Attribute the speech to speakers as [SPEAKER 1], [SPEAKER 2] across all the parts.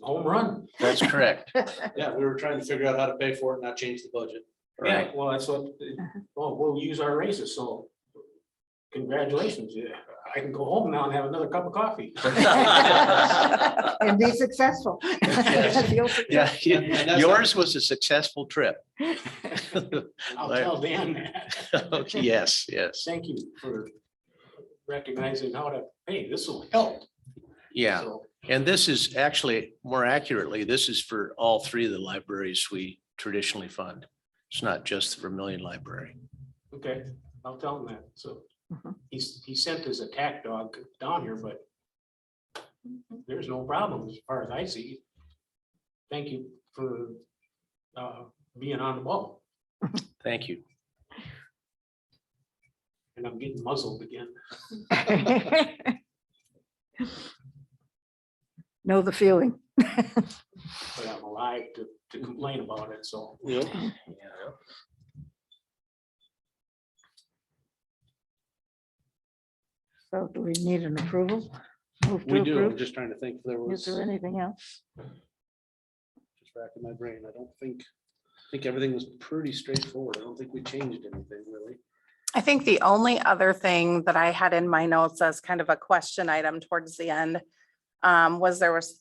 [SPEAKER 1] home run.
[SPEAKER 2] That's correct.
[SPEAKER 1] Yeah, we were trying to figure out how to pay for it, and not change the budget. Yeah,
[SPEAKER 2] Right.
[SPEAKER 1] well, that's what, well, we'll use our raises, so congratulations. yeah. I can go home now and have another cup of coffee.
[SPEAKER 2] Yeah,
[SPEAKER 3] and be successful.
[SPEAKER 2] Yes.
[SPEAKER 3] You'll succeed.
[SPEAKER 1] that's-
[SPEAKER 2] Yours was a successful trip.
[SPEAKER 1] I'll tell Dan that.
[SPEAKER 2] Yes, yes.
[SPEAKER 1] Thank you for recognizing how to, hey, this will help.
[SPEAKER 2] Yeah.
[SPEAKER 1] So,
[SPEAKER 2] And this is actually, more accurately, this is for all three of the libraries we traditionally fund. It's not just the Vermillion Library.
[SPEAKER 1] Okay, I'll tell him that, so.
[SPEAKER 3] Mhm.
[SPEAKER 1] He's, he sent his attack dog down here, but there's no problem as far as I see. Thank you for uh, being on the ball,
[SPEAKER 2] Thank you.
[SPEAKER 1] and I'm getting muzzled again.
[SPEAKER 3] Know the feeling.
[SPEAKER 1] but I'm alive to,
[SPEAKER 4] Mm-hmm.
[SPEAKER 1] to complain about it, so.
[SPEAKER 3] So do we need an approval? Move to
[SPEAKER 4] We do, I'm
[SPEAKER 3] approve?
[SPEAKER 4] just trying to think if there was,
[SPEAKER 3] Is there
[SPEAKER 4] just
[SPEAKER 3] anything else?
[SPEAKER 4] racking my brain, I don't think, I think everything was pretty straightforward, I don't think we changed anything really.
[SPEAKER 5] I think the only other thing that I had in my notes as kind of a question item towards the end um, was there was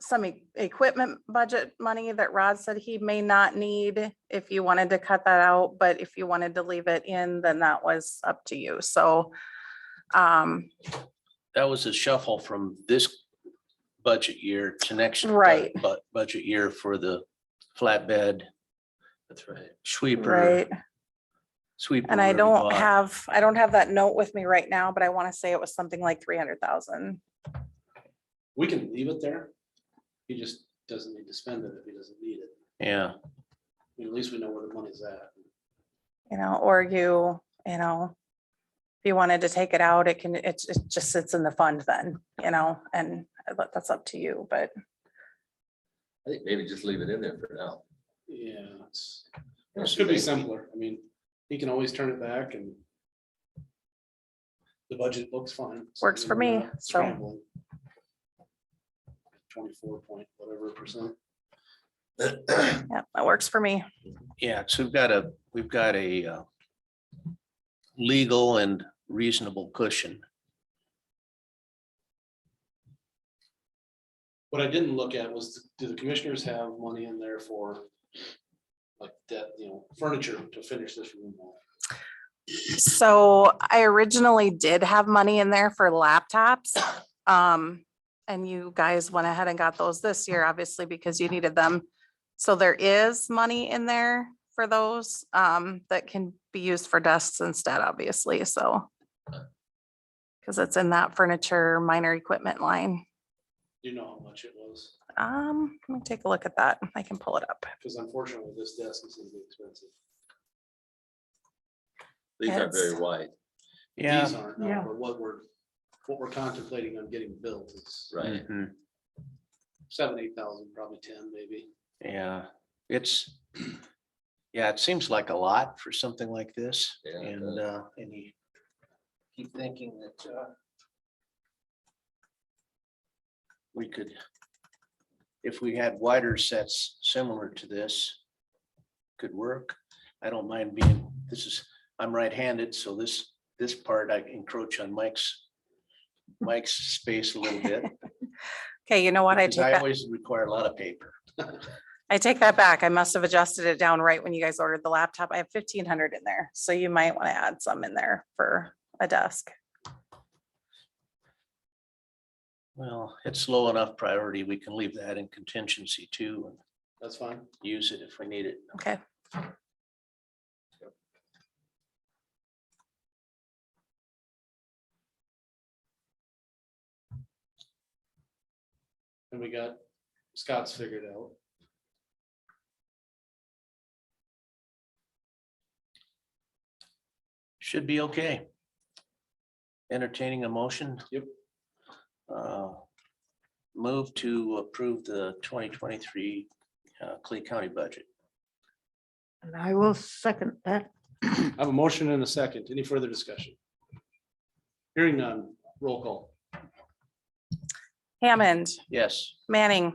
[SPEAKER 5] some e- equipment budget money that Rod said he may not need if you wanted to cut that out, but if you wanted to leave it in, then that was up to you. So um,
[SPEAKER 2] That was a shuffle from this budget year to next.
[SPEAKER 5] Right.
[SPEAKER 2] But budget year for the flatbed. That's right. Sweeper,
[SPEAKER 5] right,
[SPEAKER 2] sweeper.
[SPEAKER 5] and I
[SPEAKER 2] we
[SPEAKER 5] don't
[SPEAKER 2] bought.
[SPEAKER 5] have, I don't have that note with me right now, but I want to say it was something like three hundred thousand.
[SPEAKER 4] We can leave it there, he just doesn't need to spend it if he doesn't need it,
[SPEAKER 2] Yeah,
[SPEAKER 4] I mean, at least we know where the money's at.
[SPEAKER 5] you know, or you, you know, if you wanted to take it out, it can, it, it just sits in the fund then, you know, and but that's up to you, but
[SPEAKER 6] I think maybe just leave it in there for now.
[SPEAKER 4] Yeah, it's, it should be simpler, I mean, he can always turn it back and the budget looks fine. so
[SPEAKER 5] Works for
[SPEAKER 4] we're
[SPEAKER 5] me,
[SPEAKER 4] not
[SPEAKER 5] so.
[SPEAKER 4] scrambling. Twenty-four point whatever percent.
[SPEAKER 5] yeah, that works for me.
[SPEAKER 2] yeah. So we've got a, we've got a uh, legal and reasonable cushion.
[SPEAKER 4] What I didn't look at was, do the commissioners have money in there for like that, you know, furniture to finish this room? off?
[SPEAKER 5] So I originally did have money in there for laptops. Um, and you guys went ahead and got those this year, obviously, because you needed them. So there is money in there for those, um, that can be used for desks instead, obviously, so. Cause it's in that furniture, minor equipment line.
[SPEAKER 4] Do you know how much it was?
[SPEAKER 5] Um, let me take a look at that. I can pull it up.
[SPEAKER 4] Because unfortunately, this desk is gonna be expensive.
[SPEAKER 6] These aren't very
[SPEAKER 5] Yes.
[SPEAKER 6] wide,
[SPEAKER 2] Yeah.
[SPEAKER 4] These aren't, no,
[SPEAKER 3] Yeah.
[SPEAKER 4] but what we're, what we're contemplating on getting built is
[SPEAKER 6] right?
[SPEAKER 2] Mhm.
[SPEAKER 4] seven, eight thousand, probably ten maybe.
[SPEAKER 2] Yeah, it's, yeah, it seems like a lot for something like this
[SPEAKER 6] Yeah, it
[SPEAKER 2] and, uh, and you keep thinking that, uh, we could, if we had wider sets similar to this, could work. I don't mind being, this is, I'm right-handed, so this, this part I encroach on Mike's, Mike's space a little bit.
[SPEAKER 5] Okay, you know what? I
[SPEAKER 2] because
[SPEAKER 5] take that,
[SPEAKER 2] always require a lot of paper.
[SPEAKER 5] I take that back. I must have adjusted it down right when you guys ordered the laptop. I have fifteen hundred in there, so you might want to add some in there for a desk.
[SPEAKER 2] Well, it's low enough priority. We can leave that in contingency too and
[SPEAKER 4] That's fine.
[SPEAKER 2] use it if we need it.
[SPEAKER 5] Okay,
[SPEAKER 4] And we got Scott's figured out.
[SPEAKER 2] Should be okay. Entertaining a motion.
[SPEAKER 4] Yep.
[SPEAKER 2] Uh, Move to approve the twenty twenty-three Clay County budget.
[SPEAKER 3] And I will second that.
[SPEAKER 4] I have a motion and a second. Any further discussion? Hearing none, roll call.
[SPEAKER 5] Hammond,
[SPEAKER 2] Yes.
[SPEAKER 5] Manning,